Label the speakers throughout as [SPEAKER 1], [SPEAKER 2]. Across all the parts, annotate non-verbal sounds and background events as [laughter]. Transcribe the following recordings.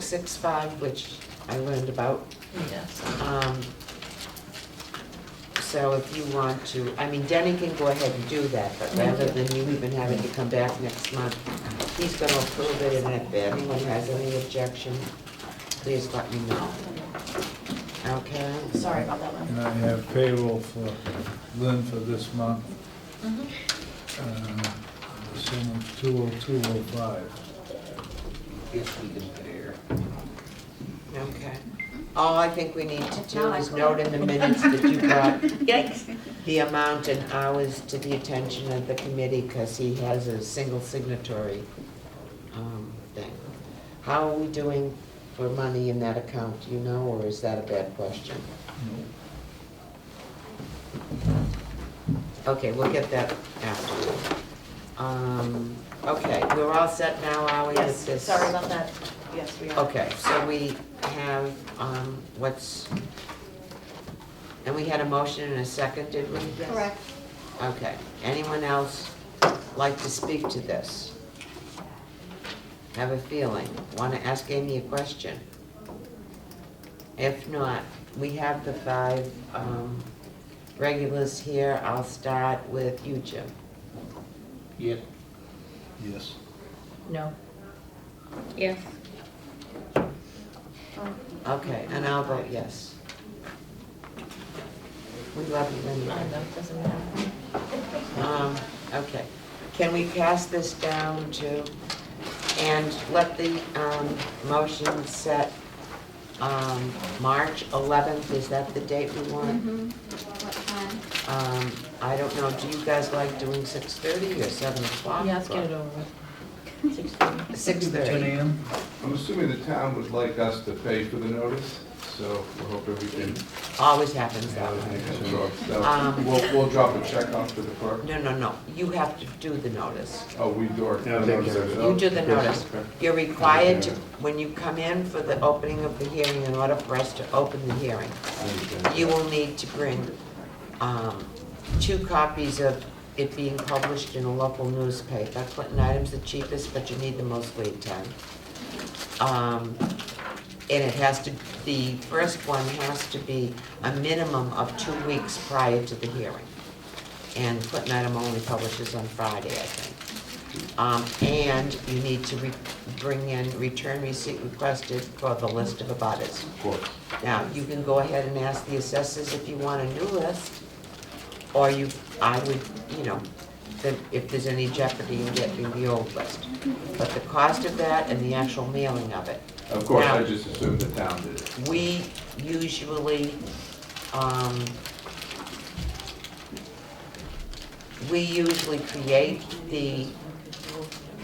[SPEAKER 1] 3665, which I learned about.
[SPEAKER 2] Yes.
[SPEAKER 1] Um, So if you want to, I mean, Denny can go ahead and do that, but rather than you even having to come back next month, he's gonna approve it, and if anyone has any objection, please let me know. Okay?
[SPEAKER 2] Sorry about that one.
[SPEAKER 3] And I have payroll for Lynn for this month, uh, the sum of 20205.
[SPEAKER 4] Yes, we can pay her.
[SPEAKER 1] Okay. All I think we need to do
[SPEAKER 2] Now I
[SPEAKER 1] is
[SPEAKER 2] go.
[SPEAKER 1] note in the minutes that you got
[SPEAKER 2] [laughs] Yikes.
[SPEAKER 1] the amount and hours to the attention of the committee, because he has a single signatory um, thing. How are we doing for money in that account, do you know, or is that a bad question? Okay, we'll get that after. Um, Okay, we're all set now, are we?
[SPEAKER 2] Yes,
[SPEAKER 1] with this?
[SPEAKER 2] sorry about that. Yes, we are.
[SPEAKER 1] Okay, so we have, um, what's, and we had a motion and a second, did we?
[SPEAKER 2] Yes.
[SPEAKER 5] Correct.
[SPEAKER 1] Okay, anyone else like to speak to this? Have a feeling, want to ask Amy a question? If not, we have the five um, regulars here. I'll start with you, Jim.
[SPEAKER 4] Yep.
[SPEAKER 3] Yes.
[SPEAKER 2] No.
[SPEAKER 5] Yes.
[SPEAKER 1] Okay, and I'll vote yes. We love you, Linda.
[SPEAKER 2] I know, it doesn't matter.
[SPEAKER 1] Um, Okay, can we pass this down to, and let the um, motion set um, March 11th, is that the date we want?
[SPEAKER 5] Mm-hmm. What time?
[SPEAKER 2] Mm-hmm.
[SPEAKER 1] Um, I don't know, do you guys like doing 6:30 or 7 o'clock?
[SPEAKER 2] Yeah, let's get it over with. Six thirty.
[SPEAKER 1] 6:30.
[SPEAKER 3] a.m.?
[SPEAKER 6] I'm assuming the town would like us to pay for the notice, so we're hoping we can
[SPEAKER 1] Always happens that way.
[SPEAKER 6] make some drugs. So
[SPEAKER 1] Um,
[SPEAKER 6] we'll, we'll drop a check off to the clerk.
[SPEAKER 1] No, no, no, you have to do the notice.
[SPEAKER 6] Oh, we do our.
[SPEAKER 4] Yeah, take care of it.
[SPEAKER 1] You do the notice.
[SPEAKER 6] Okay.
[SPEAKER 1] You're required to, when you come in for the opening of the hearing, in order for us to open the hearing, you will need to bring um, two copies of it being published in a local newspaper. Clinton Item's the cheapest, but you need the most lead time. Um, And it has to, the first one has to be a minimum of two weeks prior to the hearing. And Clinton Item only publishes on Friday, I think. Um, And you need to re- bring in return receipt requested for the list of abutters.
[SPEAKER 6] Of course.
[SPEAKER 1] Now, you can go ahead and ask the assessors if you want a new list, or you, I would, you know, the- if there's any jeopardy in getting the old list. But the cost of that and the actual mailing of it,
[SPEAKER 6] Of course, I
[SPEAKER 1] Now-
[SPEAKER 6] just assumed the town did it.
[SPEAKER 1] we usually, um, we usually create the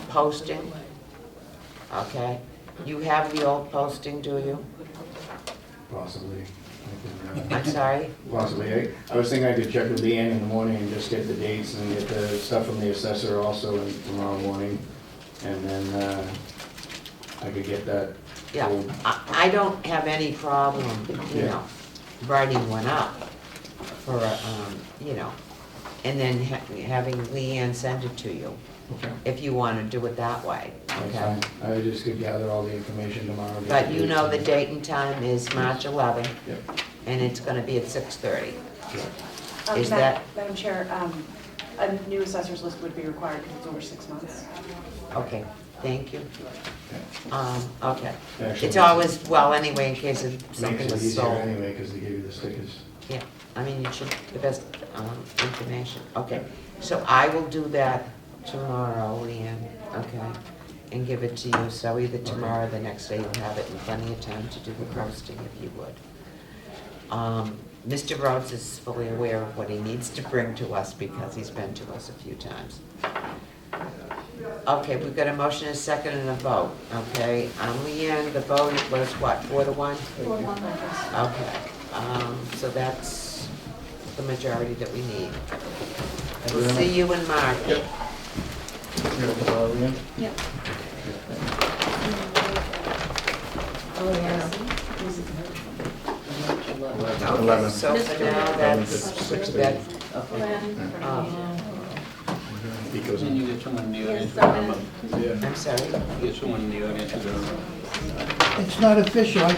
[SPEAKER 1] posting, okay? You have the old posting, do you?
[SPEAKER 7] Possibly. I can, uh,
[SPEAKER 1] I'm sorry?
[SPEAKER 7] Possibly. I- I was thinking I could check with Leanne in the morning and just get the dates and get the stuff from the assessor also in- tomorrow morning. And then uh, I could get that.
[SPEAKER 1] Yeah,
[SPEAKER 7] old-
[SPEAKER 1] I, I don't have any problem, you
[SPEAKER 7] Yeah.
[SPEAKER 1] know, writing one up for, um, you know, and then ha- having Leanne send it to you,
[SPEAKER 7] Okay.
[SPEAKER 1] if you wanna do it that way,
[SPEAKER 7] That's
[SPEAKER 1] okay?
[SPEAKER 7] fine. I just could gather all the information tomorrow. get
[SPEAKER 1] But
[SPEAKER 7] the
[SPEAKER 1] you
[SPEAKER 7] dates
[SPEAKER 1] know
[SPEAKER 7] and-
[SPEAKER 1] the date and time is March eleventh,
[SPEAKER 7] Yep.
[SPEAKER 1] and it's gonna be at six thirty.
[SPEAKER 8] Um,
[SPEAKER 1] Is
[SPEAKER 8] Madam-
[SPEAKER 1] that-
[SPEAKER 8] Madam Chair, um, a new assessor's list would be required because it's over six months.
[SPEAKER 1] Okay, thank you. Um, okay.
[SPEAKER 7] Actually,
[SPEAKER 1] It's always, well, anyway, in case if something
[SPEAKER 7] Makes it
[SPEAKER 1] was
[SPEAKER 7] easier
[SPEAKER 1] sold.
[SPEAKER 7] anyway because they give you the stickers.
[SPEAKER 1] Yeah, I mean, you should, the best um, information, okay. So I will do that tomorrow, Leanne, okay? And give it to you, so either tomorrow or the next day you'll have it and plenty of time to do the posting if you would. Um, Mr. Rhodes is fully aware of what he needs to bring to us because he's been to us a few times. Okay, we've got a motion, a second, and a vote, okay? Um, Leanne, the vote was what, four to one?
[SPEAKER 5] Four one letters.
[SPEAKER 1] Okay, um, so that's the majority that we need. We'll see you in March.
[SPEAKER 5] Yep.
[SPEAKER 2] Oh, yeah.
[SPEAKER 1] Okay, so for now, that's,
[SPEAKER 7] Six
[SPEAKER 1] that,
[SPEAKER 7] thirty.
[SPEAKER 5] Glenn.
[SPEAKER 1] um,
[SPEAKER 7] He goes
[SPEAKER 4] And
[SPEAKER 7] in.
[SPEAKER 4] you get someone in the
[SPEAKER 5] Yes,
[SPEAKER 4] audience.
[SPEAKER 5] I'm in.
[SPEAKER 7] Yeah.
[SPEAKER 1] I'm sorry.
[SPEAKER 4] You Get someone in the audience. who's gonna-
[SPEAKER 3] it's not official, I